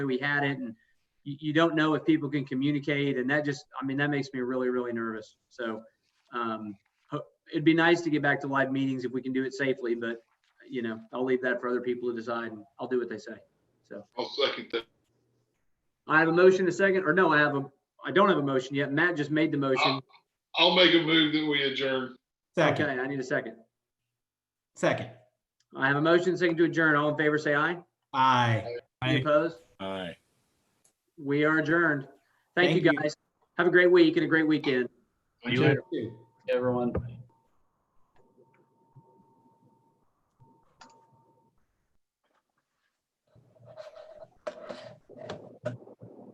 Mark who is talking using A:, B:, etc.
A: we had it and you, you don't know if people can communicate and that just, I mean, that makes me really, really nervous. So, um, ho- it'd be nice to get back to live meetings if we can do it safely, but you know, I'll leave that for other people to decide and I'll do what they say. So
B: I'll second that.
A: I have a motion, a second, or no, I have a, I don't have a motion yet. Matt just made the motion.
B: I'll make a move that we adjourn.
A: Okay,
C: Second,
A: I need a second.
C: second.
A: I have a motion, second to adjourn. All in favor, say aye.
C: Aye.
A: Any opposed?
D: Aye.
A: We are adjourned. Thank you
C: Thank you.
A: guys. Have a great week and a great weekend.
D: You later.
C: Two.
E: everyone.